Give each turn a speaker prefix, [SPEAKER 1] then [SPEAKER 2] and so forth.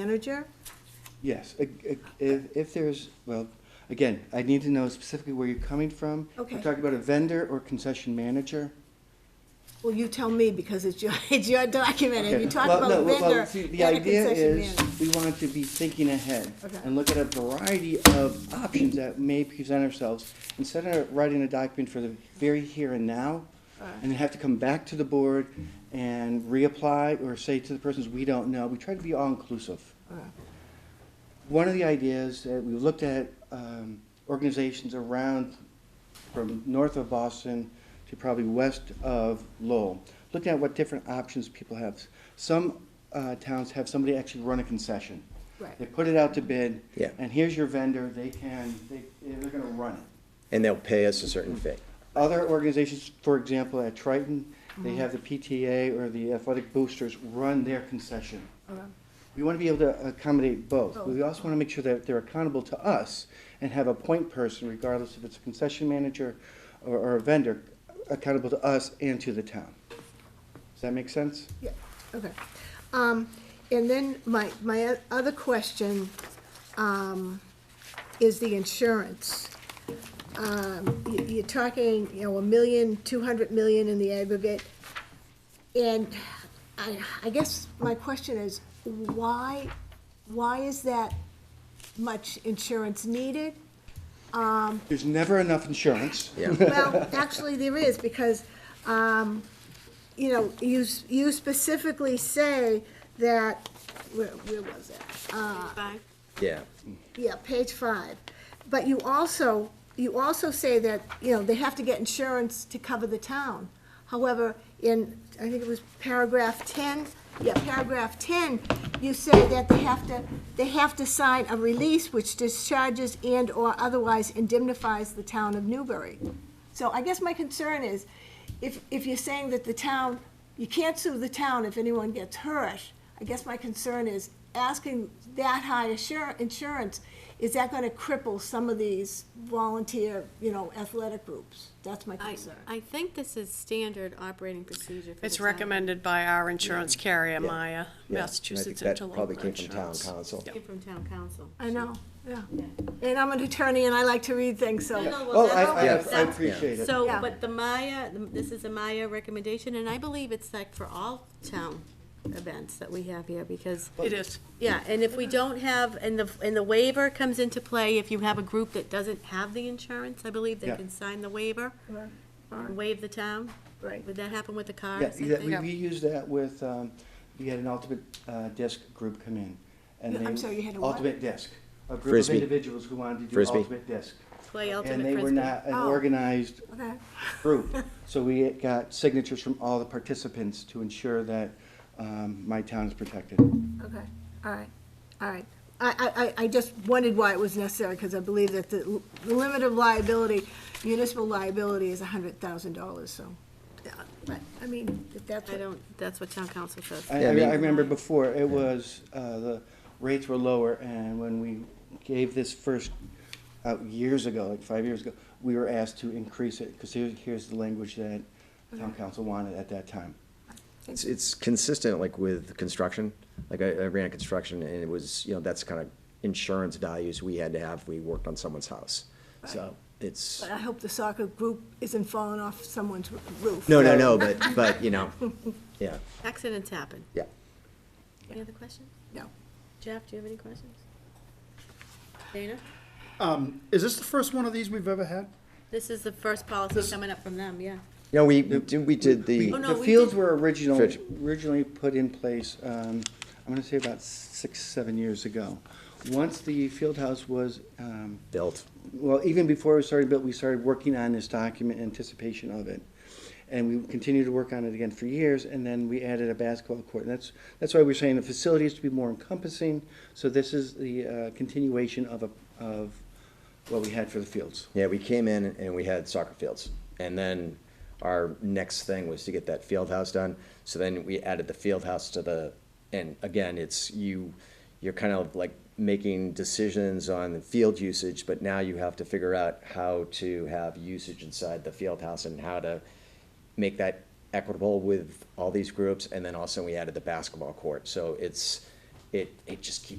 [SPEAKER 1] manager?
[SPEAKER 2] Yes, i- i- if, if there's, well, again, I need to know specifically where you're coming from.
[SPEAKER 1] Okay.
[SPEAKER 2] We're talking about a vendor or concession manager.
[SPEAKER 1] Well, you tell me, because it's your, it's your document, and
[SPEAKER 2] Okay.
[SPEAKER 1] you talk
[SPEAKER 2] Well,
[SPEAKER 1] about
[SPEAKER 2] no, well, well,
[SPEAKER 1] vendor
[SPEAKER 2] see, The
[SPEAKER 1] and a
[SPEAKER 2] idea
[SPEAKER 1] concession
[SPEAKER 2] is,
[SPEAKER 1] manager.
[SPEAKER 2] we want to be thinking ahead.
[SPEAKER 1] Okay.
[SPEAKER 2] And look at a variety of options that may present ourselves, instead of writing a document for the very here and now,
[SPEAKER 1] Alright.
[SPEAKER 2] and have to come back to the board and reapply, or say to the persons, we don't know, we try to be all-inclusive.
[SPEAKER 1] Alright.
[SPEAKER 2] One of the ideas that we looked at, um, organizations around, from north of Boston to probably west of Lowell, looking at what different options people have. Some, uh, towns have somebody actually run a concession.
[SPEAKER 1] Right.
[SPEAKER 2] They put it out to bid.
[SPEAKER 3] Yeah.
[SPEAKER 2] And here's your vendor, they can, they, they're gonna run it.
[SPEAKER 3] And they'll pay us a certain fee.
[SPEAKER 2] Other organizations, for example, at Triton, they have the PTA or the athletic boosters run their concession.
[SPEAKER 1] Alright.
[SPEAKER 2] We want to be able to accommodate both. but We
[SPEAKER 1] Both.
[SPEAKER 2] also want to make sure that they're accountable to us and have a point person, regardless if it's a concession manager or, or a vendor, accountable to us and to the town. Does that make sense?
[SPEAKER 1] Yeah, okay. Um, and then my, my o- other question, um, is the insurance. Um, you, you're talking, you know, a million, two hundred million in the aggregate. And I, I guess my question is, why, why is that much insurance needed?
[SPEAKER 2] There's never enough insurance.
[SPEAKER 3] Yeah,
[SPEAKER 1] Well, actually, there is, because, um, you know, you, s- you specifically say that, where, where was it?
[SPEAKER 3] yeah.
[SPEAKER 1] Yeah, page five. But you also, you also say that, you know, they have to get insurance to cover the town. However, in, I think it was paragraph ten, yeah, paragraph ten, you say that they have to, they have to sign a release which discharges and/or otherwise indemnifies the town of Newbury. So I guess my concern is, if, if you're saying that the town, you can't sue the town if anyone gets hurt, I guess my concern is asking that high assur- insurance, is that gonna cripple some of these volunteer, you know, athletic groups? That's my
[SPEAKER 4] I,
[SPEAKER 1] concern.
[SPEAKER 4] I think this is standard operating procedure for the
[SPEAKER 5] It's
[SPEAKER 4] town.
[SPEAKER 5] recommended by our insurance carrier, Maya,
[SPEAKER 3] Yeah,
[SPEAKER 5] Massachusetts
[SPEAKER 3] and I think that
[SPEAKER 5] Interlocal
[SPEAKER 3] probably came from town
[SPEAKER 5] Insurance.
[SPEAKER 3] council.
[SPEAKER 4] Came from town council.
[SPEAKER 1] I know, yeah. And I'm an attorney and I like to read things,
[SPEAKER 4] No,
[SPEAKER 1] so,
[SPEAKER 4] no, well,
[SPEAKER 2] Oh, I,
[SPEAKER 4] that's
[SPEAKER 2] I,
[SPEAKER 4] what
[SPEAKER 3] Yeah.
[SPEAKER 4] it
[SPEAKER 2] I
[SPEAKER 4] says.
[SPEAKER 2] appreciate it.
[SPEAKER 4] So,
[SPEAKER 1] Yeah.
[SPEAKER 4] but the Maya, this is a Maya recommendation, and I believe it's like for all town events that we have here, because,
[SPEAKER 5] It is.
[SPEAKER 4] yeah, and if we don't have, and the, and the waiver comes into play, if you have a group that doesn't have the insurance, I believe they
[SPEAKER 2] Yeah.
[SPEAKER 4] can sign the waiver, and waive the town.
[SPEAKER 1] Right.
[SPEAKER 4] Would that happen with the car
[SPEAKER 2] Yeah,
[SPEAKER 4] or something?
[SPEAKER 2] that- we, we used that with, um, we had an ultimate, uh, disc group come in. and
[SPEAKER 1] Yeah, I'm
[SPEAKER 2] they-
[SPEAKER 1] sorry, you had a what?
[SPEAKER 2] Ultimate disc, a group of
[SPEAKER 3] Frisbee.
[SPEAKER 2] individuals who wanted to do
[SPEAKER 3] Frisbee.
[SPEAKER 2] ultimate disc.
[SPEAKER 4] Play
[SPEAKER 2] And
[SPEAKER 4] ultimate
[SPEAKER 2] they were
[SPEAKER 4] frisbee.
[SPEAKER 2] not an
[SPEAKER 1] Oh.
[SPEAKER 2] organized
[SPEAKER 1] okay,
[SPEAKER 2] group. So we got signatures from all the participants to ensure that um, my town is protected.
[SPEAKER 1] okay, all right, all right. I, I- I, I just wondered why it was necessary, because I believe that the l- the limit of liability, municipal liability is a hundred thousand dollars, so. yeah, But, I mean, if that's
[SPEAKER 4] I
[SPEAKER 1] what
[SPEAKER 4] don't, that's what town council says.
[SPEAKER 2] I,
[SPEAKER 3] Yeah, I
[SPEAKER 2] I
[SPEAKER 3] mean-
[SPEAKER 2] I remember before, it was, uh, the rates were lower, and when we gave this first out years ago, like five years ago, we were asked to increase it, because here, here's the language that town council wanted at that time.
[SPEAKER 3] It's, it's consistent like with construction, like I, I ran construction and it was, you know, that's kind of insurance values we had to have if we worked on someone's house. So it's,
[SPEAKER 1] But I hope the soccer group isn't falling off someone's roof.
[SPEAKER 3] no, no, no, but, but, you know, yeah,
[SPEAKER 4] Accidents happen.
[SPEAKER 3] yeah.
[SPEAKER 4] Any other questions?
[SPEAKER 1] No.
[SPEAKER 4] Jeff, do you have any questions? Dana?
[SPEAKER 6] Is this the first one of these we've ever had?
[SPEAKER 4] This is the first policy coming up from them, yeah.
[SPEAKER 3] You know, we, we did- we did
[SPEAKER 4] Oh,
[SPEAKER 3] the,
[SPEAKER 4] no,
[SPEAKER 2] The
[SPEAKER 4] we
[SPEAKER 2] fields
[SPEAKER 4] did-
[SPEAKER 2] were original,
[SPEAKER 3] Fitch.
[SPEAKER 2] originally put in place, um, I'm gonna say about six, seven years ago. Once the field house was, um,
[SPEAKER 3] built,
[SPEAKER 2] well, even before it was started built, we started working on this document in anticipation of it. And we continued to work on it again for years, and then we added a basketball court. And that's, that's why we're saying the facility is to be more encompassing. So this is the uh, continuation of, a of what we had for the fields.
[SPEAKER 3] yeah, we came in and we had soccer fields. And then our next thing was to get that field house done. So then we added the field house to the, and again, it's you, you're kind of like making decisions on the field usage, but now you have to figure out how to have usage inside the field house and how to make that equitable with all these groups. And then also we added the basketball court. So it's, it, it just keeps